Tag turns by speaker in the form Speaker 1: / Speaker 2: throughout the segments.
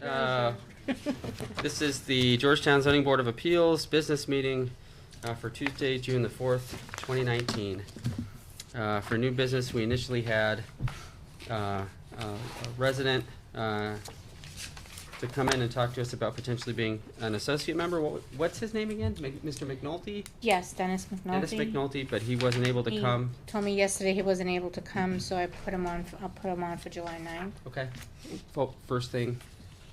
Speaker 1: Uh, This is the Georgetown Zoning Board of Appeals Business Meeting uh, for Tuesday, June the 4th, 2019. Uh, For new business, we initially had uh, uh, a resident uh, to come in and talk to us about potentially being an associate member. What- What's his name again? Mc- Mr. McNulty?
Speaker 2: Yes, Dennis McNulty.
Speaker 1: Dennis McNulty, but he wasn't able to
Speaker 2: He
Speaker 1: come.
Speaker 2: Told me yesterday he wasn't able to come, so I put him on, f- I'll put him on for July ninth.
Speaker 1: Okay. Fo- First thing,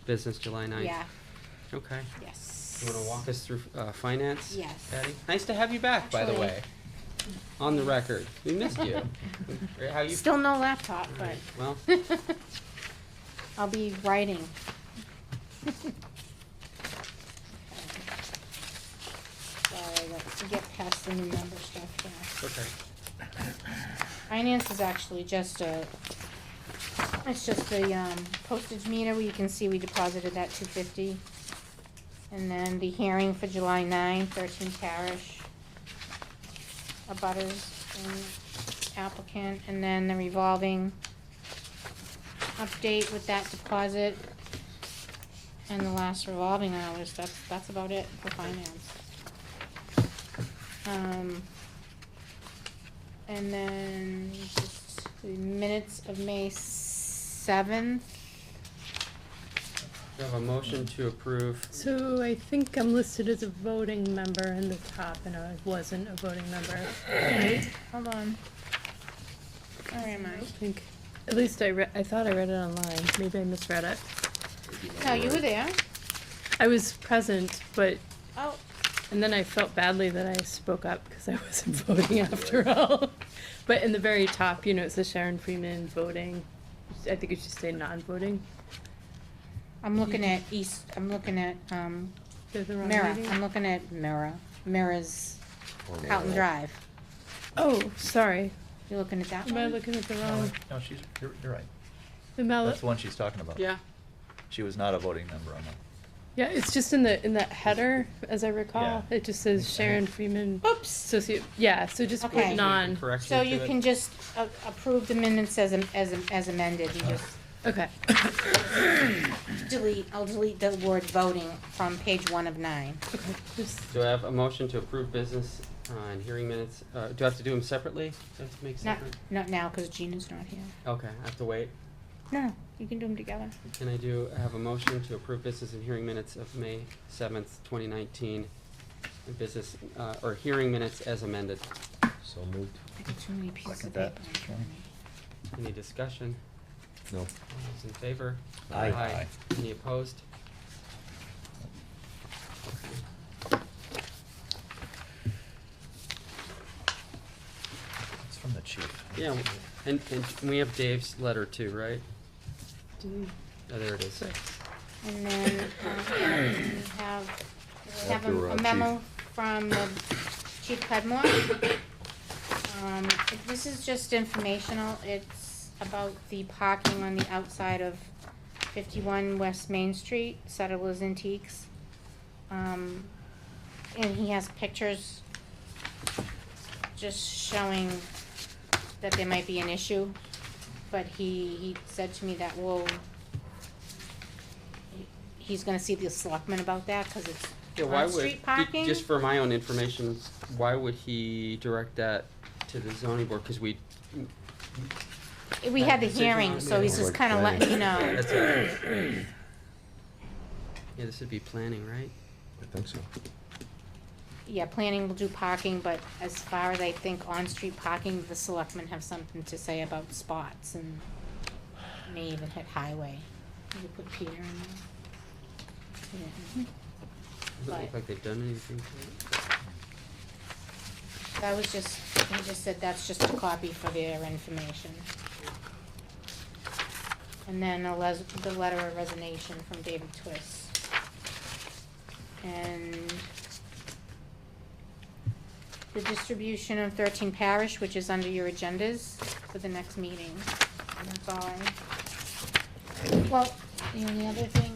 Speaker 1: business, July 9th.
Speaker 2: Yeah,
Speaker 1: Okay.
Speaker 2: yes.
Speaker 1: You want to walk us through uh, finance?
Speaker 2: Yes.
Speaker 1: Patty? Nice to have you back, by the
Speaker 2: Actually-
Speaker 1: way. On the record. We missed you. How you?
Speaker 2: Still no laptop,
Speaker 1: All right,
Speaker 2: but
Speaker 1: Well,
Speaker 2: I'll be writing. Sorry, let's get past the new member stuff now.
Speaker 1: okay.
Speaker 2: Finance is actually just a, it's just the um, postage meter where you can see we deposited that two fifty. And then the hearing for July 9, 13 parish, abutters and applicant, and then the revolving update with that deposit. And the last revolving hours, that's, that's about it for finance. Um, and then just the minutes of May seventh.
Speaker 1: We have a motion to approve.
Speaker 3: So I think I'm listed as a voting member in the top, and I wasn't a voting member, right?
Speaker 2: Hold on. Where am
Speaker 3: I
Speaker 2: I?
Speaker 3: think, at least I read, I thought I read it online, maybe I misread it.
Speaker 2: No, you were there.
Speaker 3: I was present, but,
Speaker 2: Oh,
Speaker 3: and then I felt badly that I spoke up, because I wasn't voting after all. But in the very top, you know, it says Sharon Freeman voting, I think it should say non-voting,
Speaker 2: I'm looking at East, I'm looking at, um,
Speaker 3: Did the wrong
Speaker 2: Mira,
Speaker 3: reading?
Speaker 2: I'm looking at Mira, Mira's Houghton Drive.
Speaker 3: Oh, sorry,
Speaker 2: You looking at that
Speaker 3: am I
Speaker 2: one?
Speaker 3: looking at the
Speaker 4: No,
Speaker 3: wrong,
Speaker 4: no, she's, you're, you're right.
Speaker 3: the mal-
Speaker 4: That's the one she's talking about.
Speaker 1: Yeah.
Speaker 4: She was not a voting member on that.
Speaker 3: Yeah, it's just in the, in that header, as I recall,
Speaker 4: Yeah.
Speaker 3: it just says Sharon Freeman,
Speaker 2: Oops.
Speaker 3: associate, yeah, so just
Speaker 2: Okay.
Speaker 3: put non,
Speaker 1: Correction
Speaker 2: So
Speaker 1: to
Speaker 2: you
Speaker 1: it.
Speaker 2: can just a- approve the minutes as, am- as, am- as amended, you just
Speaker 3: okay,
Speaker 2: delete, I'll delete the word voting from page one of nine.
Speaker 3: okay, just,
Speaker 1: Do I have a motion to approve business uh, and hearing minutes? Uh, Do I have to do them separately? Do I have to make
Speaker 2: Not,
Speaker 1: separate?
Speaker 2: not now, cause Gina's not here.
Speaker 1: Okay, I have to wait.
Speaker 2: No, you can do them together.
Speaker 1: Can I do, I have a motion to approve business and hearing minutes of May 7th, 2019, and business, uh, or hearing minutes as amended.
Speaker 5: So moved.
Speaker 2: I got too many pieces of
Speaker 4: Second
Speaker 2: paper.
Speaker 4: that.
Speaker 2: in front of me.
Speaker 1: Any discussion?
Speaker 5: No.
Speaker 1: All those in favor?
Speaker 5: Aye.
Speaker 1: Any opposed?
Speaker 4: It's from the chief.
Speaker 1: Yeah, and, and we have Dave's letter too, right?
Speaker 3: didn't-
Speaker 1: Oh, there it is.
Speaker 3: sorry.
Speaker 2: And then, uh, we have, we have
Speaker 5: After,
Speaker 2: a-
Speaker 5: uh,
Speaker 2: a memo from the Chief Cudmore. Um, it- this is just informational, it's about the parking on the outside of fifty-one West Main Street, Settlers Antiques. Um, and he has pictures just showing that there might be an issue, but he, he said to me that, well, he's gonna see the selectmen about that, cause it's
Speaker 1: Yeah, why would,
Speaker 2: on-street
Speaker 1: ju-
Speaker 2: parking.
Speaker 1: just for my own information, why would he direct that to the zoning board? Cause we,
Speaker 2: We had the
Speaker 1: Decision on
Speaker 2: hearing, so
Speaker 1: the-
Speaker 2: he's just kinda letting you know.
Speaker 1: that's a. Yeah, this would be planning, right?
Speaker 5: I think so.
Speaker 2: Yeah, planning will do parking, but as far as I think on-street parking, the selectmen have something to say about spots and may even hit highway. You could put Peter in there. Mm-hmm. Yeah.
Speaker 1: Doesn't
Speaker 2: Right.
Speaker 1: look like they've done anything to it.
Speaker 2: That was just, he just said that's just a copy for their information. And then a les- the letter of resignation from David Twist. And the distribution of thirteen parish, which is under your agendas for the next meeting, and that's all I. Well, the only other thing